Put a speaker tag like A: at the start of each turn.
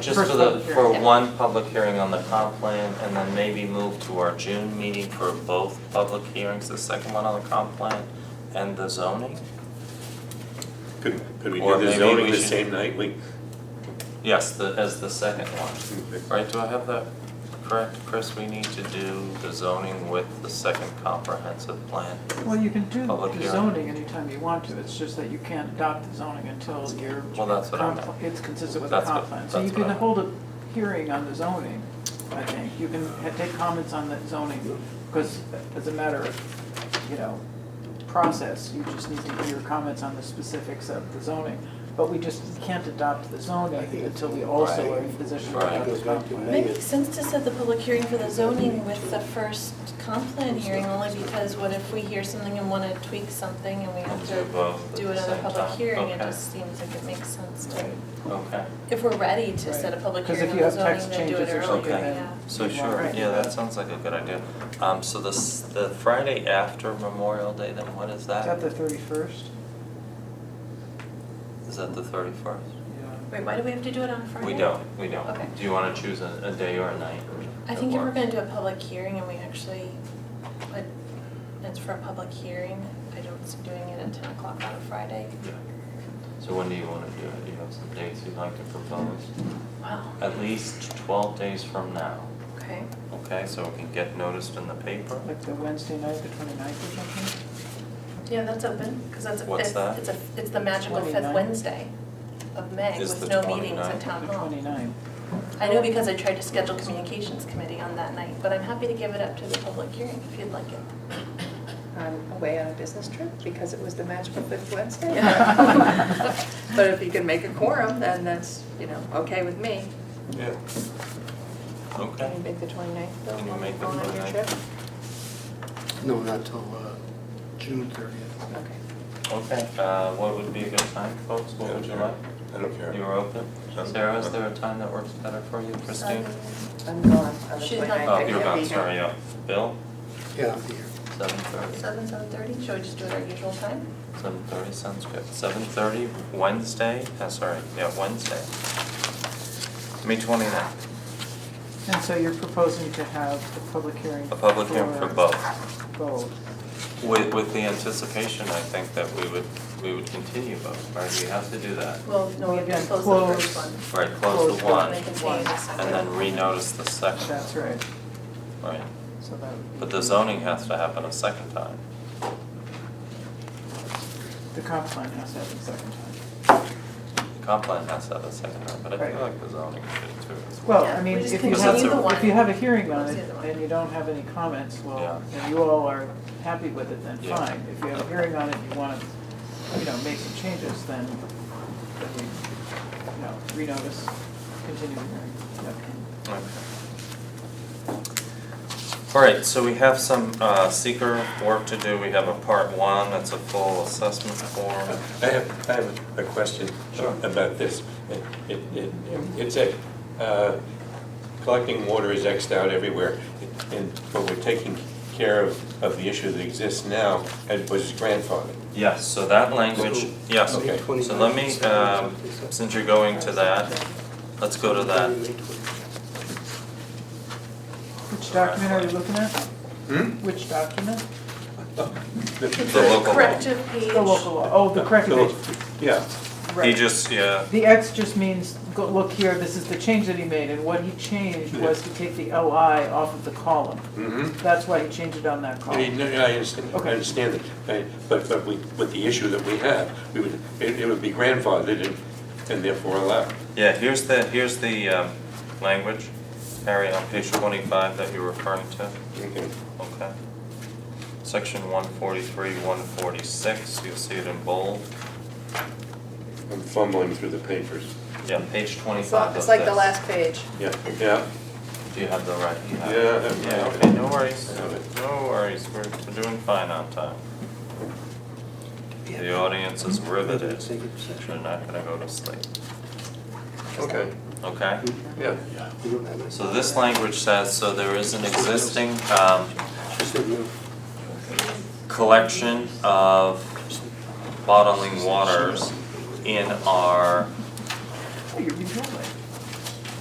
A: just
B: First
A: for the,
B: public hearing,
A: for
B: yeah.
A: one public hearing on the comp plan, and then maybe move to our June meeting for both public hearings, the second one on the comp plan and the zoning?
C: Could, could we
A: Or
C: do
A: maybe we
C: the zoning the
A: should-
C: same night? We,
A: Yes, the, as the second one. Right, do I have that correct, Chris? We need to do the zoning with the second comprehensive plan.
B: Well, you can do
A: Public
B: the
A: hearing.
B: zoning anytime you want to, it's just that you can't adopt the zoning until you're.
A: Well, that's what I meant.
B: compl- It's consistent with the
A: That's what-
B: comp plan. So you
A: that's what
B: can
A: I meant.
B: hold a hearing on the zoning, I think. You can ha- take comments on the zoning, because as a matter of, you know, process, you just need to hear comments on the specifics of the zoning. But we just can't adopt the zoning until we also are in position to
A: Right.
B: adopt the comp plan.
D: It makes sense to set the public hearing for the zoning with the first comp plan hearing, only because what if we hear something and want to tweak something and we
A: We'll
D: have
A: do both at
D: to do
A: the
D: it on a
A: same
D: public
A: time.
D: hearing? It
A: Okay.
D: just seems like it makes sense to,
A: Okay,
D: if we're ready to set a public
B: Right. 'Cause if
D: hearing on
B: you
D: the
B: have text
D: zoning, then do it
B: changes or
D: earlier, yeah.
A: something, then- so
B: Right.
A: sure, yeah, that sounds like a good idea. Um, so the, s- the Friday after Memorial Day, then what is
B: Is that
A: that?
B: the thirty-first?
A: Is that the thirty-first?
D: Wait, why do we have to do it on Friday?
A: We don't, we don't.
D: Okay.
A: Do you wanna choose a, a day or a night?
D: I
A: that
D: think if we're
A: works?
D: gonna do a public hearing and we actually, like, it's for a public hearing, I don't see doing it at ten o'clock on a Friday.
A: Yeah. So when do you wanna do it? Do you have some dates you'd like to propose?
D: Wow,
A: At least twelve days from now,
D: okay.
A: okay, so it can get noticed in the paper?
B: Like the Wednesday night, the 29th or something?
D: Yeah, that's open, because that's, a-
A: What's
D: it's,
A: that?
D: it's a, it's the magical fifth
B: 29th.
D: Wednesday of May
A: Is
D: with
A: the
D: no meetings at
A: 29th.
D: town
B: The
D: hall.
B: 29th.
D: I know because I tried to schedule communications committee on that night, but I'm happy to give it up to the public hearing if you'd like it.
E: I'm um, away on a business trip because it was the magical fifth Wednesday.
B: Yeah.
E: But if you can make a quorum, then that's, you know, okay with me.
A: Yeah.
E: Can
A: Okay,
E: you make the 29th, Bill?
A: Can you
E: while
A: make the
E: I'm On your
A: 29th?
E: trip?
F: No, not till uh, June thirtieth.
E: Okay.
A: okay, uh, what would be a good time, folks, what would you like?
C: I don't care.
A: You're open? Sarah, is there a time that works better for you, Christine?
E: I'm gone on the
D: She's not-
E: 29th. I
A: Oh, you're
E: can't
A: gone,
E: be here.
A: sorry, yeah. Bill,
F: Yeah, I'll be here.
A: seven thirty?
D: Seven, seven thirty, should we just do it our usual time?
A: Seven thirty sounds good. Seven thirty, Wednesday, uh, sorry, yeah, Wednesday. May twenty-ninth,
B: And so you're proposing to have the public hearing?
A: a public hearing for both.
B: both.
A: With, with the anticipation, I think that we would, we would continue both, right? We have to do that.
D: Well, no,
B: Well,
D: we have to
B: again,
D: close the first
B: close.
D: one.
A: Right, close
B: Close
A: the
B: the
A: one
D: They can change the second.
A: and then renotice the second,
B: That's right.
A: right?
B: So that would be.
A: But the zoning has to happen a second time.
B: The comp plan has to happen second time.
A: The comp plan has to have a second time, but I feel
B: Right.
A: like the zoning should too. as well.
B: Well,
D: Yeah,
B: I mean,
D: we just
B: if you have,
A: continue the
B: if
D: one.
B: you have a hearing on
D: Close
B: it
D: the other one.
B: and you don't have any comments, well,
A: Yeah.
B: and you all are happy with it, then
A: Yeah.
B: fine. If you have a hearing on it and you want to, you know, make some changes, then, then we, you know, renotice, continue the hearing. Yep.
A: Okay. All right, so we have some uh, seeker work to do. We have a part one, that's a full assessment form.
C: I have, I have a question
A: Sure.
C: about this. It, it, it- it's a, uh, collecting water is Xed out everywhere, and, but we're taking care of, of the issue that exists now, and was grandfathered.
A: Yes, so that language,
F: So-
A: yes.
C: Okay.
A: So let me, um, since you're going to that, let's go to that.
B: Which document are you looking at?
C: Hmm?
B: Which document?
A: The local law.
D: Corrective page.
B: The local law, oh, the corrected page,
C: Yeah,
A: He
B: right.
A: just, yeah,
B: The X just means, go, look here, this is the change that he made, and what he changed was to take the LI off of the column.
C: mm-hmm.
B: That's why he changed it on that
C: I mean,
B: column.
C: no, I understand, I
B: Okay.
C: understand that, I- but, but we, with the issue that we have, we would, it, it would be grandfathered and, and therefore allowed.
A: yeah, here's the, here's the um, language, Harry, on page 25 that you're referring to.
C: Okay.
A: Okay. Section 143, 146, you'll see it in bold.
C: I'm fumbling through the papers.
A: Yeah, page 25
E: It's like-
A: of
E: It's like the
A: this.
E: last page.
C: Yeah, yeah.
A: Do you have the right? you have it.
C: Yeah, I have it.
A: Yeah, okay, no worries,
C: I have it.
A: no worries, we're we're doing fine on time. The audience is riveted,
F: Executive session.
A: they're not gonna go to sleep,
C: Okay,
A: okay?
C: yeah.
F: We don't have it.
A: So this language says, so there is an existing um
F: She said no.
A: collection of bottling waters in our
B: Oh, you're being told that.